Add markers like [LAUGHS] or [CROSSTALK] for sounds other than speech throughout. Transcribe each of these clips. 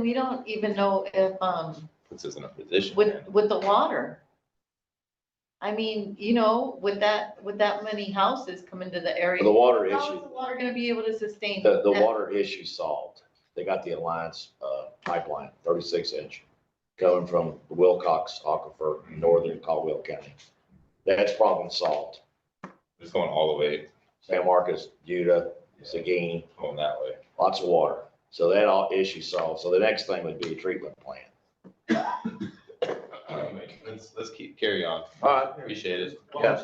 We don't even know if, um, puts us in a position. man. with, with the water. I mean, you know, with that, with that many houses come into the area, The water how is issue, the water gonna be able to sustain? the, the that? water issue solved. They got the Alliance, uh, pipeline, thirty-six inch, coming from the Wilcox Aquifer, in northern Caldwell County. That's problem solved. It's going all the way, San Marcos, Utah, Seguin, going that way. lots of water. So that all issue solved. So the next thing would be a treatment plant. Anyway, Um, Let's, let's keep, carry on. All right. Appreciate it. Yeah.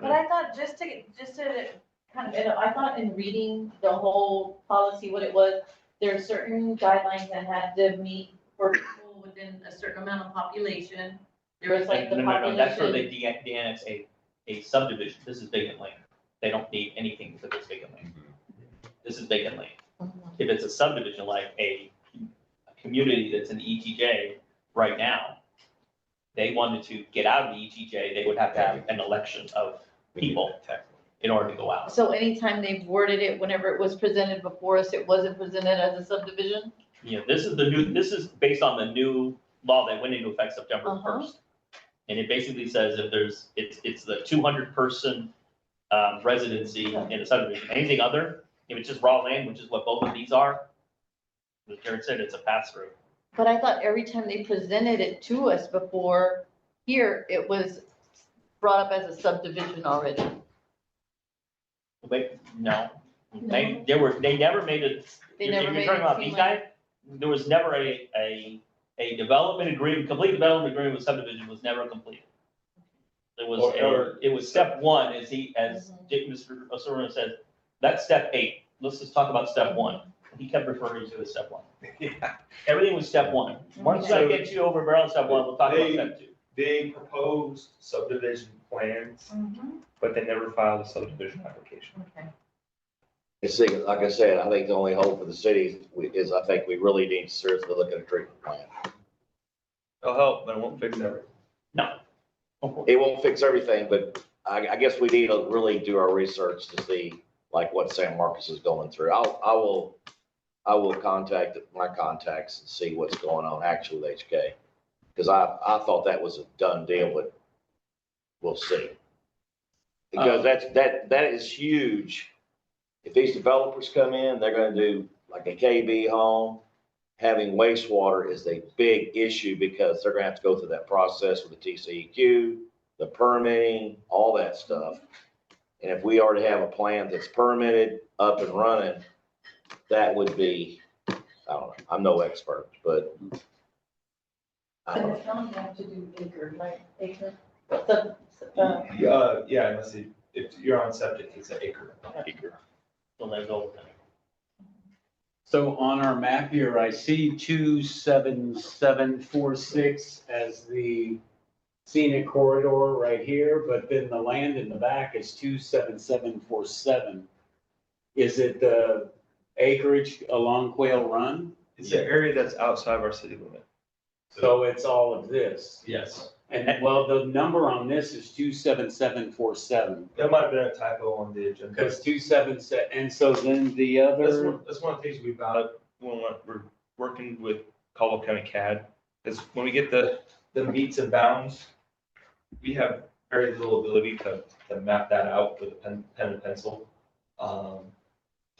But I thought, just to, just to kind of, I thought in reading the whole policy, what it was, there are certain guidelines that had to meet for people within a certain amount of population. There was like No, the no, no, that's where population. they de- de-annex a, a subdivision, this is vacant land, they don't need anything for this vacant Mm-hmm. land, this is vacant land. Mm-hmm. If it's a subdivision like a, a community that's in ETJ right now, they wanted to get out of the ETJ, they would have to have an election of people in order to go out. So anytime they've worded it, whenever it was presented before us, it wasn't presented as a subdivision? You know, this is the new, this is based on the new law that went into effect September Uh-huh. first. And it basically says if there's, it's, it's the two hundred person, um, residency in a subdivision, anything other, if it's just raw land, which is what both of these are. As Jared said, it's a pass through. But I thought every time they presented it to us before here, it was brought up as a subdivision already. Wait, no, they, they were, they never made it, They if you're never made talking it about seem these like- guys, there was never a, a, a development agreement, complete development agreement with subdivision was never completed. It was, Or- or- it was step one, as he, as Mhm. Dick, Mr. Osorno says, that's step eight, let's just talk about step one. He kept referring to it as step one. Everything was step one. Mm-hmm. Once I So- get you over barrel on step one, we'll talk about They- step two. [LAUGHS] They proposed subdivision plans, Mm-hmm. but they never filed a subdivision application. Okay. It's, like- like I said, I think the only hope for the city is I think we really need to seriously look at a treatment plant. It'll help, but it won't fix everything. Of course. It won't fix everything, but I, I guess we need to really do our research to see like what San Marcos is going through. I'll, I will, I will contact my contacts and see what's going on actually with HK. Cause I, I thought that was a done deal, but we'll see. Because that's, that, that is huge. If these developers come in, they're gonna do like a KB home. Having wastewater is a big issue because they're gonna have to go through that process with the TCEQ, the permitting, all that stuff. And if we already have a plan that's permitted, up and running, that would be, I don't know, I'm no expert, but. I don't So know. the county have to do acre, right, acre, sub, sub- uh, Uh, yeah, unless you, if you're on subject, it's an acre. So they go with it. So on our map here, I see two seven seven four six as the scenic corridor right here, but then the land in the back is two seven seven four seven. Is it the acreage along Quail Run? It's the area that's outside of our city limit. So it's all of this. Yes. And well, the number on this is two seven seven four seven. That might have been a typo on the agenda. Because two seven se- and so then the That's other, one, that's one of the things we've got, when we're- we're working with Caldwell County CAD, is when we get the, the meets and bounds, we have very little ability to, to map that out with a pen, pen and pencil, um,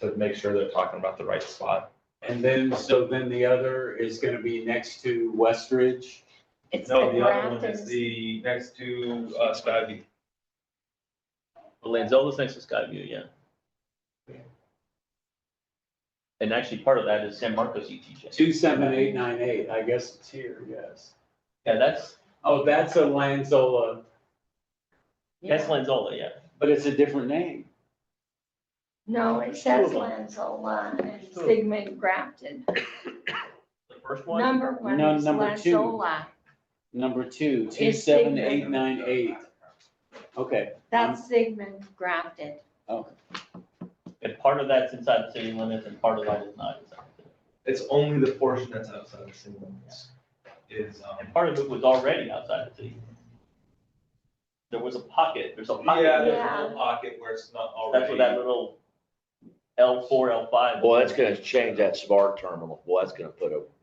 to make sure they're talking about the right spot. and then, so then the other is gonna be next to Westridge. It's No, the the other one Grafton's is the, next to, uh, Skyview. Well, Lanzola's next to Skyview, yeah. And actually, part of that is San Marcos ETJ. Two seven eight nine eight, I guess it's here, yes. Yeah, that's, Oh, that's a Lanzola, that's Lanzola, yeah. but it's a different name. No, it says Lanzola and Sigmund Grafton. The first one, Number one No, is number two. Lanzola. Number two, two It's seven eight nine eight. Okay, That's Sigmund Grafton. oh, and part of that's inside the city limits and part of that is not inside. the city. It's only the portion that's outside the city limits. Is, um, And part of it was already outside the city. There was a pocket, there's a pocket. yeah, there's a Yeah. little pocket where it's not already. That's where that little L four, L five. Well, that's gonna change that smart terminal. Well, that's gonna put a